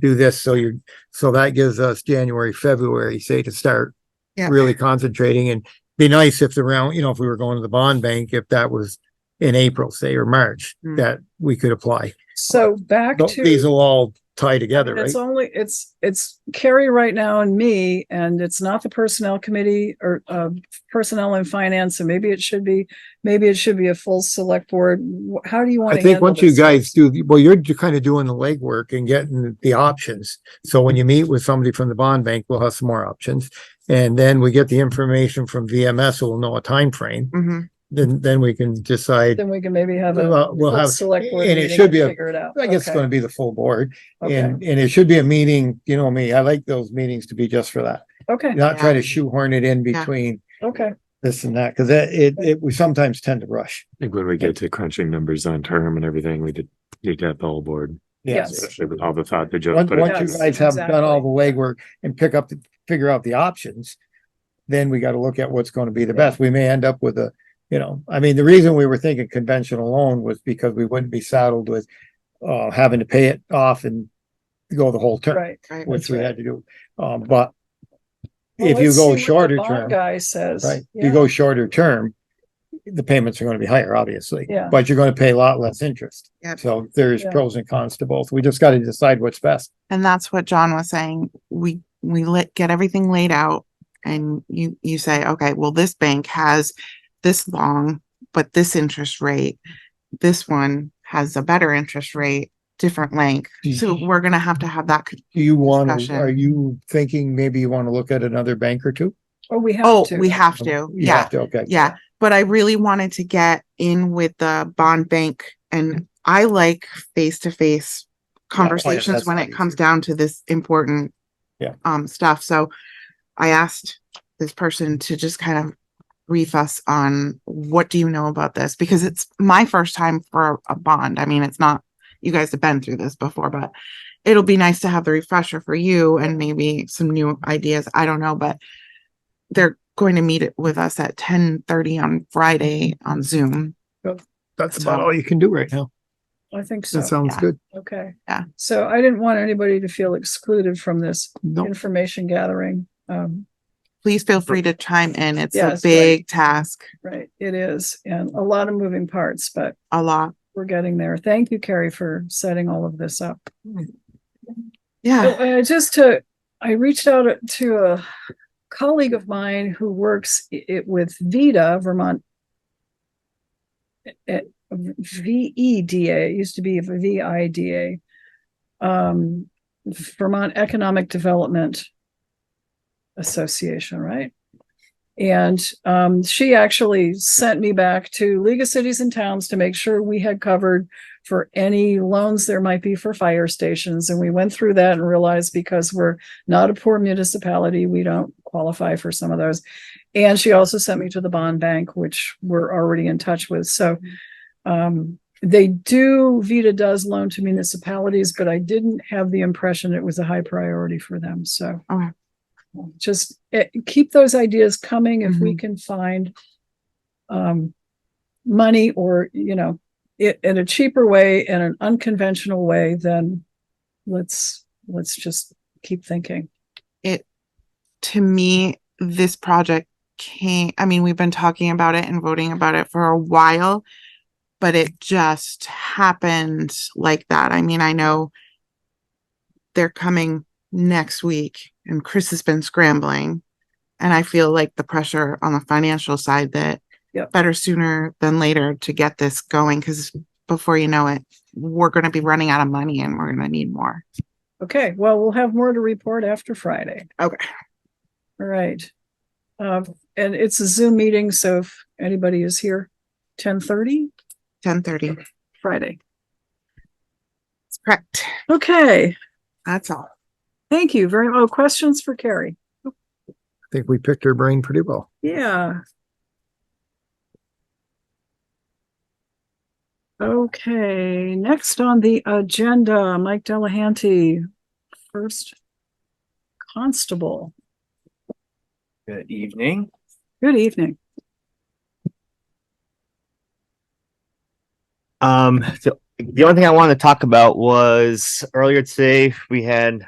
do this, so you're, so that gives us January, February, say, to start Yeah. really concentrating and be nice if the round, you know, if we were going to the bond bank, if that was in April, say, or March, Mm. that we could apply. So back But These to, will all tie together, right? it's only, it's, it's Carrie right now and me, and it's not the personnel committee or, uh, personnel and finance, and maybe it should be, maybe it should be a full select board. Wh- How do you want I to think handle once you this? guys do, the- well, you're kind of doing the legwork and getting the options. So when you meet with somebody from the bond bank, we'll have some more options. And then we get the information from VMS, so we'll know a time frame. Mhm. Then, then we can decide, Then we can maybe have a. Well, uh, we'll full have- Select board and it meeting should and be a- Figure it out. I guess it's Okay, going to be the full board. okay, And, and it should be a meeting, you know me, I like those meetings to be just for that. Okay, Not try Yeah. to shoehorn it in Yeah. between okay. this and that, because it, it, it- we sometimes tend to rush. I think when we get to crunching numbers on term and everything, we did need to have the whole board, Yes. especially with all the thought that Joe Once, put once you Yes, it. guys have done all the exactly. legwork and pick up, the figure out the options, then we gotta look at what's gonna be the best. We may end up with a, you know, I mean, the reason we were thinking conventional loan was because we wouldn't be saddled with uh, having to pay it off and go the whole term, Right. Right. which that's we right. had to do. Um, but Well, if you let's see go what the shorter bond term. Guy says. Right, if Yeah. you go shorter term, the payments are gonna be higher, obviously. Yeah. But you're gonna pay a lot less interest. Yep. So there's Yeah. pros and cons to both. We just gotta decide what's best. And that's what John was saying. We, we let, get everything laid out and you, you say, okay, well, this bank has this long, but this interest rate, this one has a better interest rate, different length. Do you- So we're gonna have to have that. con- Do you wanna, Discussion. are you thinking maybe you wanna look at another bank or two? Oh, we have Oh, to. we have to. You Yeah. have to, Okay. Yeah, but I really wanted to get in with the bond bank and I like face to face that's conversations when not it comes easy. down to this important Yeah. um stuff. So I asked this person to just kind of brief us on what do you know about this? Because it's my first time for a bond. I mean, it's not you guys have been through this before, but it'll be nice to have the refresher for you and maybe some new ideas. I don't know, but they're going to meet it with us at ten thirty on Friday on Zoom. That's about about all all you can do right now. I think That so. sounds yeah. good. Okay. Yeah. So I didn't want anybody to feel excluded from this No, information gathering. Um, Please feel free to chime in. It's Yes, a right. big task, right, it is, and a lot of moving parts, but a lot. we're getting there. Thank you, Carrie, for setting all of this up. Yeah. Oh, uh, just to, I reached out uh, to a colleague of mine who works i- it with VEDA, Vermont. It, V E D A, it used to be V I D A. Um, Vermont Economic Development Association, right? And um, she actually sent me back to League of Cities and Towns to make sure we had covered for any loans there might be for fire stations. And we went through that and realized because we're not a poor municipality, we don't qualify for some of those. And she also sent me to the bond bank, which we're already in touch with. So um, they do, Vita does loan to municipalities, but I didn't have the impression it was a high priority for them. So Okay. just eh, keep those ideas coming if we can find um, money or, you know, it in a cheaper way and an unconventional way, then let's, let's just keep thinking. To me, this project came, I mean, we've been talking about it and voting about it for a while, but it just happened like that. I mean, I know they're coming next week and Chris has been scrambling. And I feel like the pressure on the financial side that Yep. better sooner than later to get this going because before you know it, we're going to be running out of money and we're going to need more. Okay, well, we'll have more to report after Friday. Okay. All right. Uh, and it's a Zoom meeting, so if anybody is here, ten thirty 1030. Friday. That's correct. Okay, That's all. thank you very, oh, questions for Carrie? I think we picked her brain pretty well. Yeah. Okay, next on the agenda, Mike Delahanty, first constable. Good evening. Good evening. Um, so the only thing I wanted to talk about was earlier today, we had